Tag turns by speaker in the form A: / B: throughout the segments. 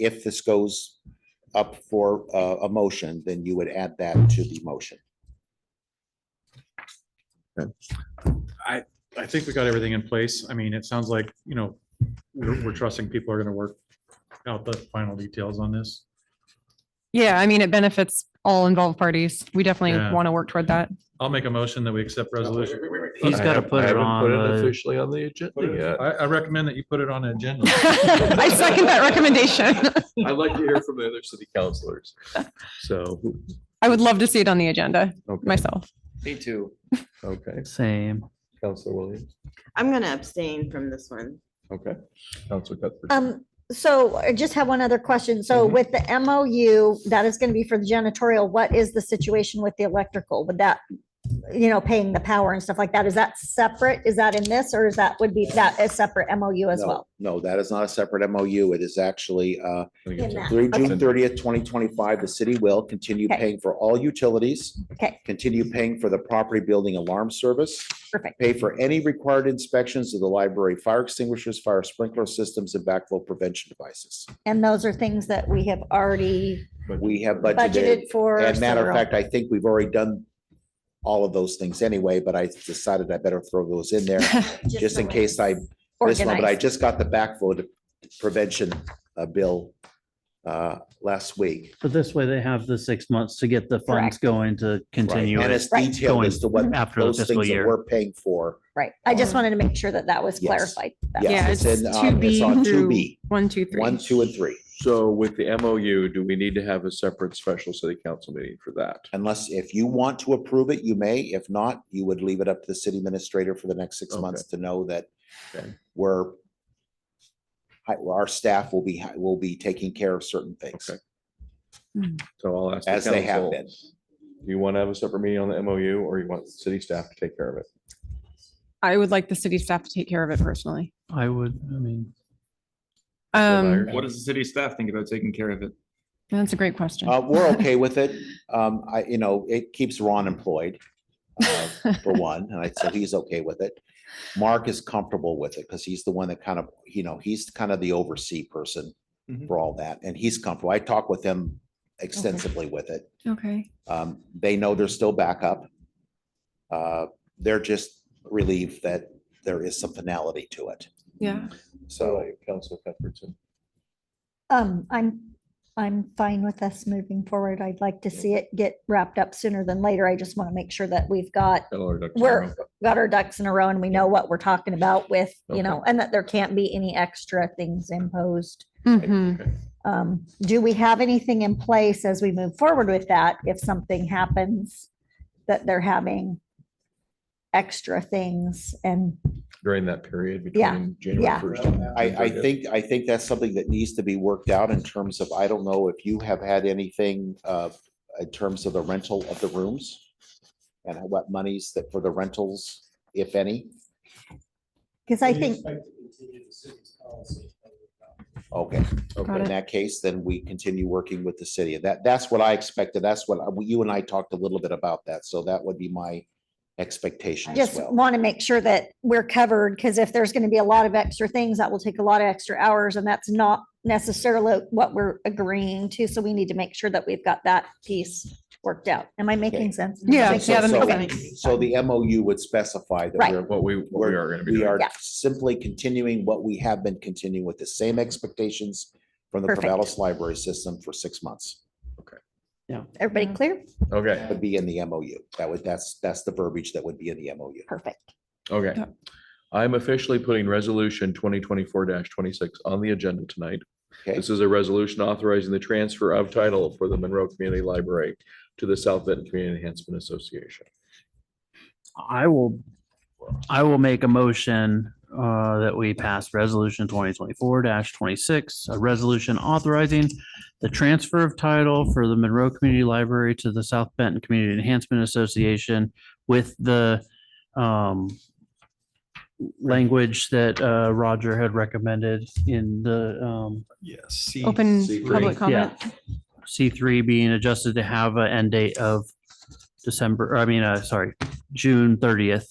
A: if this goes up for uh, a, a motion, then you would add that to the motion.
B: I think we got everything in place. I mean, it sounds like, you know, we're, we're trusting people are gonna work out the final details on this.
C: Yeah, I mean, it benefits all involved parties. We definitely
B: Yeah.
C: want to work toward that.
B: I'll make a motion that we accept resolution.
D: He's
E: I
D: gotta
E: haven't-
D: put
E: I
D: it
E: haven't Put
D: on,
E: it
D: uh,
E: officially on the agenda yet.
B: I, I recommend that you put it on the agenda.
C: I second that recommendation.
E: I'd like to hear from the other city councilors. So,
C: I would love to see it on the agenda
E: okay,
C: myself.
F: Me too.
E: okay,
D: Same.
E: Counselor Williams,
G: I'm gonna abstain from this one.
E: okay. Counselor Cuthbert.
H: Um, so I just have one other question. So
A: Mm-hmm.
E: Mhm.
H: with the MOU, that is going to be for the janitorial, what is the situation with the electrical? Would that, you know, paying the power and stuff like that, is that separate? Is that in this or is that would be that a separate MOU as
A: No,
H: well?
A: No, that is not a separate MOU. It is actually, uh,
E: I think it's-
H: In that.
A: Through June
E: Okay.
A: thirtieth, twenty twenty-five, the city will continue
H: Okay.
A: paying for all utilities.
H: Okay.
A: Continue paying for the property building alarm service.
H: Perfect.
A: Pay for any required inspections of the library, fire extinguishers, fire sprinkler systems, and backflow prevention devices.
H: And those are things that we have already
A: We have budgeted.
H: budgeted for.
A: And matter of
H: several.
A: fact, I think we've already done all of those things anyway, but I decided I better throw those in there, just in
H: so
A: case I
H: it's
A: this one, but I
H: organized.
A: just got the backflow de- prevention uh, bill uh, last week.
D: But this way they have the six months to get the funds
H: Correct.
D: going to continue.
A: And
D: it.
A: it's
H: Right.
A: detailed as to what
D: Going after the
A: those
D: fiscal
A: things that
D: year.
A: we're paying for.
H: Right. I just
C: Um,
H: wanted to make sure that that was
A: Yes.
H: clarified. That-
A: Yes,
C: Yeah,
A: it's
C: it's
A: in, um,
C: 2B
A: it's on
C: through-
A: 2B,
C: One, two, three.
A: one, two, and three.
E: So with the MOU, do we need to have a separate special city council meeting for that?
A: Unless, if you want to approve it, you may. If not, you would leave it up to the city administrator for the next six
E: Okay.
A: months to know that
E: Okay.
A: we're hi- our staff will be, will be taking care of certain things.
E: Okay. So I'll ask. the
A: As they have
E: council,
A: been.
E: Do you want to have a separate meeting on the MOU or you want city staff to take care of it?
C: I would like the city staff to take care of it personally.
D: I would, I mean,
C: Um,
E: Myers.
F: What does the city staff think about taking care of it?
C: that's a great question.
A: Uh, we're okay with it. Um, I, you know, it keeps Ron employed. uh, For one, and I, so he's okay with it. Mark is comfortable with it because he's the one that kind of, you know, he's kind of the oversee person
F: Mhm.
A: for all that, and he's comfortable. I talk with him extensively with it.
C: Okay.
A: Um, they know there's still backup. Uh, they're just relieved that there is some finality to it.
C: Yeah.
A: So
E: Council Cuthbertson.
H: Um, I'm, I'm fine with us moving forward. I'd like to see it get wrapped up sooner than later. I just want to make sure that we've got,
E: Hello, Dr.
H: We're-
E: Romero.
H: got our ducks in a row and we know what we're talking about with,
E: Okay.
H: you know, and that there can't be any extra things imposed.
C: Mhm.
E: Okay.
H: Um, do we have anything in place as we move forward with that? If something happens, that they're having extra things and,
E: During that period
H: Yeah,
E: between January
H: yeah.
E: first.
A: I,
E: and
A: I
E: January 30th.
A: think, I think that's something that needs to be worked out in terms of, I don't know if you have had anything uh, in terms of the rental of the rooms? And what monies that for the rentals, if any?
H: because I think,
A: Okay,
C: Got
A: in
C: it.
A: that case, then we continue working with the city. That, that's what I expected. That's what, I- you and I talked a little bit about that. So that would be my expectation as
H: just
A: well.
H: want to make sure that we're covered, because if there's going to be a lot of extra things, that will take a lot of extra hours, and that's not necessarily what we're agreeing to, so we need to make sure that we've got that piece worked out. Am I making sense?
C: Yeah,
H: Makes
A: So-
C: yeah,
H: sense?
C: that makes
A: so-
H: Okay.
C: sense.
A: So the MOU would specify that
H: Right.
A: we're,
E: What we, what we
A: We're-
E: are going to be
A: we
E: doing.
A: are
H: Yeah.
A: simply continuing what we have been continuing with the same expectations from the
H: Perfect.
A: Corvallis Library System for six months.
H: Everybody clear?
E: Okay,
A: Would be in the MOU. That would, that's, that's the verbiage that would be in the MOU.
H: Perfect.
E: okay.
C: Yeah.
E: I'm officially putting resolution twenty twenty-four twenty-six on the agenda tonight.
A: Okay,
E: This is a resolution authorizing the transfer of title for the Monroe Community Library to the South Benton Community Enhancement Association.
D: I will, I will make a motion uh, that we pass resolution twenty twenty-four twenty-six, a resolution authorizing the transfer of title for the Monroe Community Library to the South Benton Community Enhancement Association with the um, language that uh, Roger had recommended in the um,
E: Yes.
C: Open
E: C3.
C: public
D: Yeah.
C: comment.
D: C three being adjusted to have an end date of December, or I mean, uh, sorry, June thirtieth,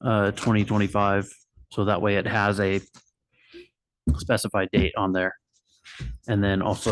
D: uh, twenty twenty-five. So that way it has a specified date on there. And then also